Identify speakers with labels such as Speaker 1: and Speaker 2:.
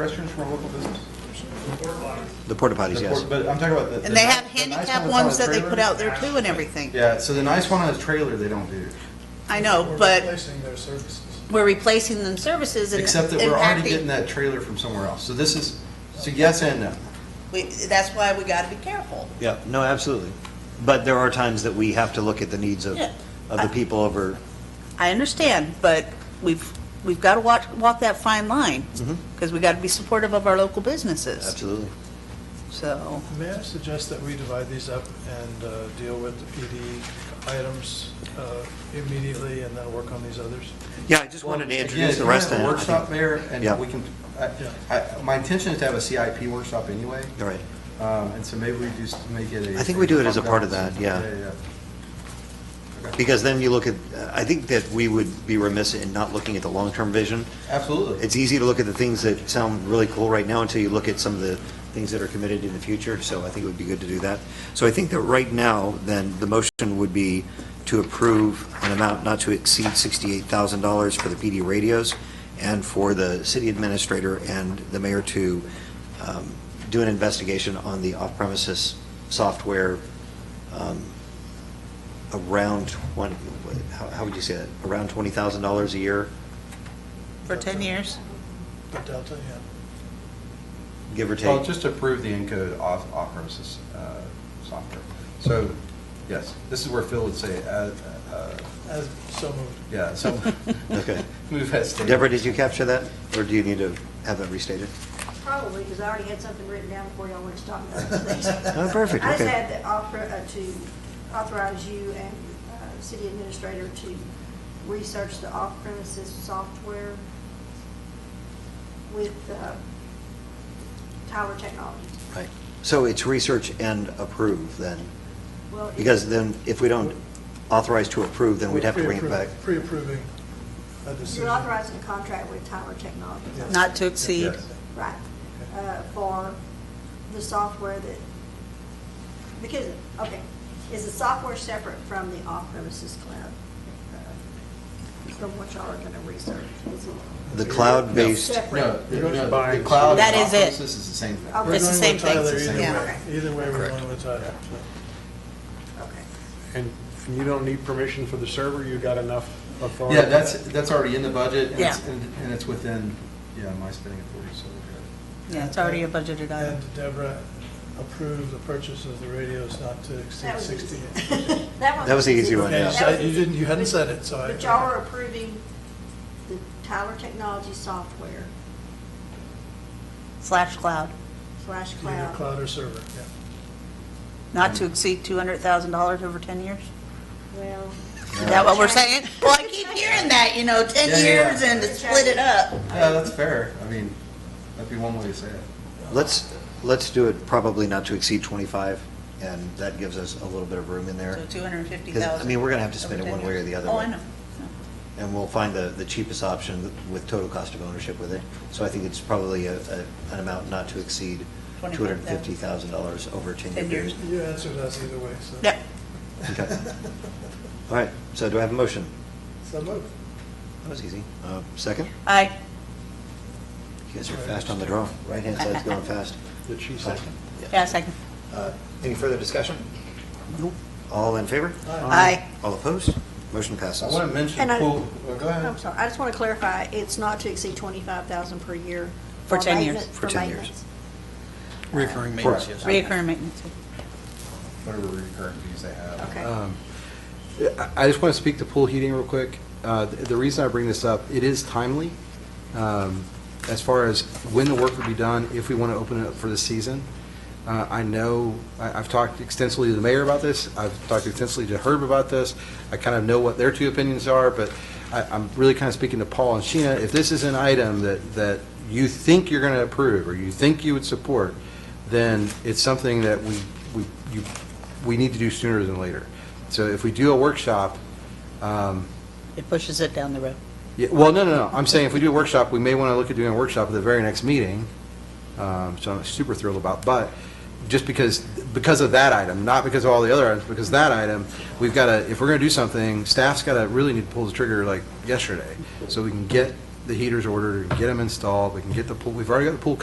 Speaker 1: Restrooms for local business?
Speaker 2: The porta potties, yes.
Speaker 1: But I'm talking about the.
Speaker 3: And they have
Speaker 1: the nice
Speaker 3: handicap
Speaker 1: one
Speaker 3: ones
Speaker 1: that's on
Speaker 3: that
Speaker 1: a
Speaker 3: they put
Speaker 1: trailer.
Speaker 3: out there too and everything.
Speaker 1: Yeah, so the nice one on a trailer, they don't do.
Speaker 3: I know,
Speaker 4: We're
Speaker 3: but
Speaker 4: replacing their services.
Speaker 3: we're replacing them services and
Speaker 1: Except that we're already getting
Speaker 3: impacting.
Speaker 1: that trailer from somewhere else. So this is, so yes and no.
Speaker 3: we- That's why we gotta be careful.
Speaker 2: Yeah, no, absolutely. But there are times that we have to look at the needs of,
Speaker 3: Yeah.
Speaker 2: of the people over,
Speaker 3: I understand, but we've, we've gotta watch, walk that fine line.
Speaker 1: Mm-hmm.
Speaker 3: Because we gotta be supportive of our local businesses,
Speaker 2: absolutely.
Speaker 3: so.
Speaker 4: May I suggest that we divide these up and uh, deal with the PD items uh, immediately and then work on these others?
Speaker 2: Yeah, I just wanted to introduce
Speaker 1: Again,
Speaker 2: the rest
Speaker 1: if
Speaker 2: of
Speaker 1: we
Speaker 2: it.
Speaker 1: have a workshop there,
Speaker 2: Yeah.
Speaker 1: and we can, I- I- my intention is to have a CIP workshop anyway.
Speaker 2: All right,
Speaker 1: Um, And so maybe we just make it a.
Speaker 2: I think we do it as a part of that, yeah.
Speaker 1: Yeah, yeah.
Speaker 2: because then you look at, I think that we would be remiss in not looking at the long-term vision.
Speaker 1: Absolutely.
Speaker 2: It's easy to look at the things that sound really cool right now until you look at some of the things that are committed in the future, so I think it would be good to do that. So I think that right now, then, the motion would be to approve an amount not to exceed $68,000 for the PD radios and for the city administrator and the mayor to um, do an investigation on the off-premises software um, around 20, how how would you say that? Around $20,000 a year,
Speaker 3: For 10 years?
Speaker 4: The Delta, yeah.
Speaker 2: give or take?
Speaker 5: Oh,
Speaker 1: Well, just to approve the Encode off off premises uh, software. So, yes, this is where Phil would say, uh, uh,
Speaker 4: As- So moved.
Speaker 1: yeah, so.
Speaker 2: Okay.
Speaker 1: Move as stated.
Speaker 2: Deborah, did you capture that, or do you need to have that restated?
Speaker 6: Probably, because I already had something written down before y'all went to talk about this.
Speaker 2: Oh, perfect,
Speaker 6: I just
Speaker 2: okay.
Speaker 6: had to offer, uh, to authorize you and uh, city administrator to research the off-premises software with uh, Tyler Technologies.
Speaker 2: Right. So it's research and approve, then?
Speaker 6: Well, it-
Speaker 2: Because then, if we don't authorize to approve, then we'd have to bring it back.
Speaker 4: Pre-appro- Pre-approving a decision.
Speaker 6: You're authorizing a contract with Tyler Technologies.
Speaker 4: Yeah.
Speaker 3: Not to exceed.
Speaker 1: Yes.
Speaker 6: Right, uh, for the software that, because, okay, is the software separate from the off-premises cloud? uh, From what y'all are gonna research? Is it-
Speaker 2: The cloud-based,
Speaker 1: No,
Speaker 6: Separate,
Speaker 1: the- no, the cloud
Speaker 3: That
Speaker 1: and
Speaker 3: is
Speaker 1: off
Speaker 3: it.
Speaker 1: premises is the same thing.
Speaker 6: Okay.
Speaker 4: We're
Speaker 3: It's the
Speaker 4: going
Speaker 3: same
Speaker 4: with
Speaker 3: thing,
Speaker 4: Tyler
Speaker 1: it's the
Speaker 4: either
Speaker 1: same
Speaker 4: way.
Speaker 6: thing.
Speaker 4: Either way, we're
Speaker 1: Correct.
Speaker 4: going with Tyler.
Speaker 6: okay.
Speaker 7: And you don't need permission for the server, you got enough authority?
Speaker 1: Yeah, that's, that's already in the budget, and it's,
Speaker 3: Yeah.
Speaker 1: and and it's within, yeah, my spending authority, so we're good.
Speaker 3: Yeah, it's already a budgeted item.
Speaker 4: And Deborah approved the purchase of the radios not to exceed
Speaker 6: That was easy.
Speaker 4: 68.
Speaker 6: That
Speaker 2: That was the easy one,
Speaker 4: Yeah, you
Speaker 2: yeah.
Speaker 4: said- you didn't, you hadn't said it, so I.
Speaker 6: But y'all are approving the Tyler Technologies software
Speaker 3: Slash cloud.
Speaker 6: slash
Speaker 4: Either
Speaker 6: cloud.
Speaker 4: cloud or server, yeah.
Speaker 3: Not to exceed $200,000 over 10 years?
Speaker 6: Well,
Speaker 3: Is that what we're saying? Well, I keep hearing that, you know,
Speaker 1: Yeah,
Speaker 3: 10
Speaker 1: yeah,
Speaker 3: years
Speaker 1: yeah.
Speaker 3: and to split it up.
Speaker 1: Yeah, that's fair. I mean, that'd be one way to say it.
Speaker 2: let's, let's do it probably not to exceed 25, and that gives us a little bit of room in there.
Speaker 3: So 250,000.
Speaker 2: Because, I mean, we're gonna have to spend it one way or the other
Speaker 3: Oh,
Speaker 2: way.
Speaker 3: I know.
Speaker 2: And we'll find the, the cheapest option with total cost of ownership with it. So I think it's probably a, a- an amount not to exceed $250,000 over a 10-year
Speaker 3: 10
Speaker 2: period.
Speaker 3: years.
Speaker 4: You answered us either way, so.
Speaker 3: Yep.
Speaker 2: Okay. All right, so do I have a motion?
Speaker 4: So move.
Speaker 2: That was easy. Uh, Second?
Speaker 3: Aye.
Speaker 2: You guys are fast on the draw. Right-hand side's going fast.
Speaker 7: Did she say?
Speaker 3: Yeah, second.
Speaker 2: Uh, Any further discussion? Nope. All in favor?
Speaker 3: Aye.
Speaker 2: All opposed? Motion passes.
Speaker 1: I want to mention
Speaker 6: And I-
Speaker 1: pool, oh, go ahead.
Speaker 6: I'm sorry, I just want to clarify, it's not to exceed twenty-five thousand per year.
Speaker 3: For 10 years.
Speaker 6: maintenance-
Speaker 2: For 10 years.
Speaker 6: maintenance.
Speaker 5: Reoccurring maintenance,
Speaker 2: maintenance, yes.
Speaker 3: Reoccurring maintenance.
Speaker 1: Whatever recurring fees they have.
Speaker 6: Okay.
Speaker 5: Um, I just want to speak to pool heating real quick. Uh, th- The reason I bring this up, it is timely um, as far as when the work would be done, if we want to open it up for the season. Uh, I know, I- I've talked extensively to the mayor about this, I've talked extensively to Herb about this, I kind of know what their two opinions are, but I- I'm really kind of speaking to Paul and Sheena, if this is an item that, that you think you're going to approve, or you think you would support, then it's something that we, we, you, we need to do sooner than later. So if we do a workshop, um,
Speaker 3: It pushes it down the road.
Speaker 5: yeah, well, no, no, no, I'm saying if we do a workshop, we may want to look at doing a workshop at the very next meeting, um, so I'm super thrilled about, but just because, because of that item, not because of all the other items, because that item, we've got to, if we're going to do something, staff's got to, really need to pull the trigger like yesterday, so we can get the heaters ordered, and get them installed, we can get the pool, we've already got the pool